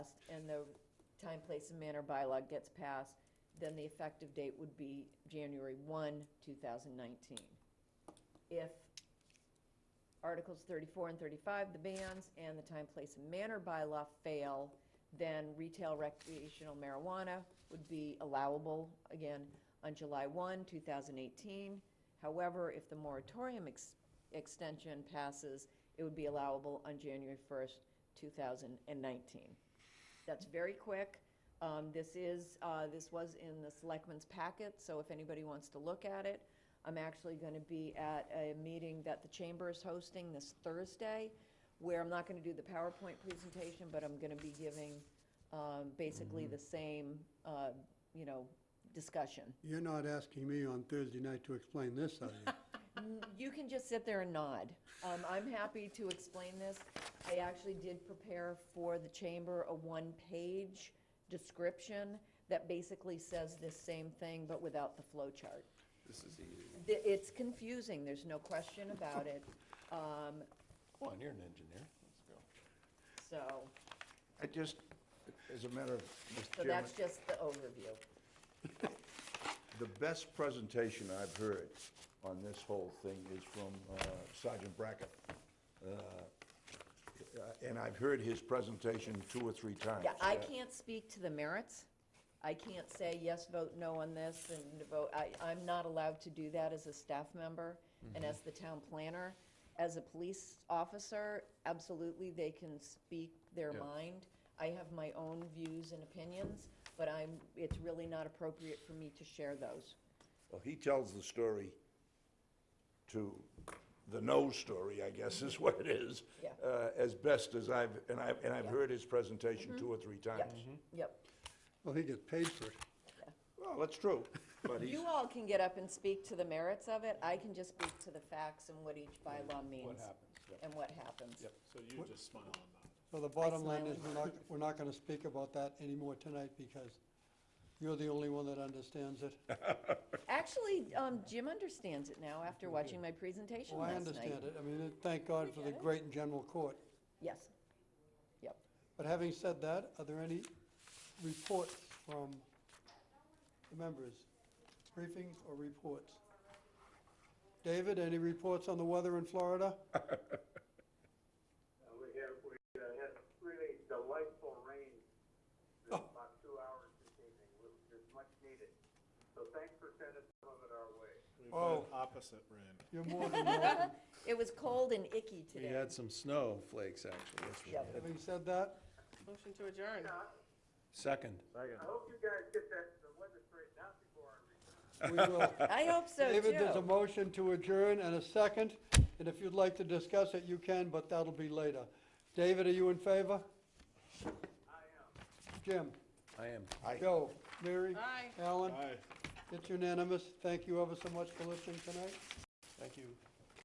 passed and the time, place, and manner bylaw gets passed, then the effective date would be January 1, 2019. If Articles 34 and 35, the bans, and the time, place, and manner bylaw fail, then retail recreational marijuana would be allowable, again, on July 1, 2018. However, if the moratorium ex- extension passes, it would be allowable on January 1st, 2019. That's very quick. Um, This is, uh, this was in the selectmen's packet, so if anybody wants to look at it, I'm actually going to be at a meeting that the chamber is hosting this Thursday, where I'm not going to do the PowerPoint presentation, but I'm going to be giving um, basically the same, uh, you know, discussion. You're not asking me on Thursday night to explain this, are you? N- You can just sit there and nod. Um, I'm happy to explain this. I actually did prepare for the chamber a one-page description that basically says this same thing, but without the flow chart. This is easy. Th- It's confusing, there's no question about it. Um, Come on, you're an engineer. Let's go. So, I just, as a matter of, so Mr. Chairman, that's just the overview. the best presentation I've heard on this whole thing is from uh, Sergeant Brackett. Uh, And I've heard his presentation two or three times. Uh, Yeah, I can't speak to the merits. I can't say yes, vote no on this and vote, I, I'm not allowed to do that as a staff member and as the town planner. As a police officer, absolutely, they can speak their mind. I have my own views and opinions, but I'm, it's really not appropriate for me to share those. Well, he tells the story to, the no story, I guess, is what it is. Yeah. uh, As best as I've, and I've, and I've heard his Mm-hmm. presentation two or three Yep, times. yep. Well, he gets paid for it. Well, that's true, but he's, You all can get up and speak to the merits of it. I can just speak to the facts and what each bylaw means. happens, yep. And what happens. Yep. So you just smile and nod. So the bottom line smile is, we're not, we're not gonna speak about that anymore tonight because you're the only one that understands it. Actually, um, Jim understands it now after watching my presentation Well, I last night. understand it. I mean, it- thank God for the get it. great and general court. Yes. Yep. But having said that, are there any reports from the members? Briefings or reports? David, any reports on the weather in Florida? Uh, We had, we uh, had really delightful rain for about two hours this evening, which is much needed. So thanks for sending some of it our way. We've Oh. got opposite rain. You're more than welcome. It was cold and icky We today. had some snowflakes, actually. That's what we Yep. had. Having said that, Motion to adjourn. Second. I hope you guys get that, the weather straightened out before I return. we will. I hope so too. David, there's a motion to adjourn and a second, and if you'd like to discuss it, you can, but that'll be later. David, are you in favor? I am. I am. Jim? Joe? Mary? Aye. Alan? Bye. It's unanimous. Thank you ever so much for listening tonight. Thank you.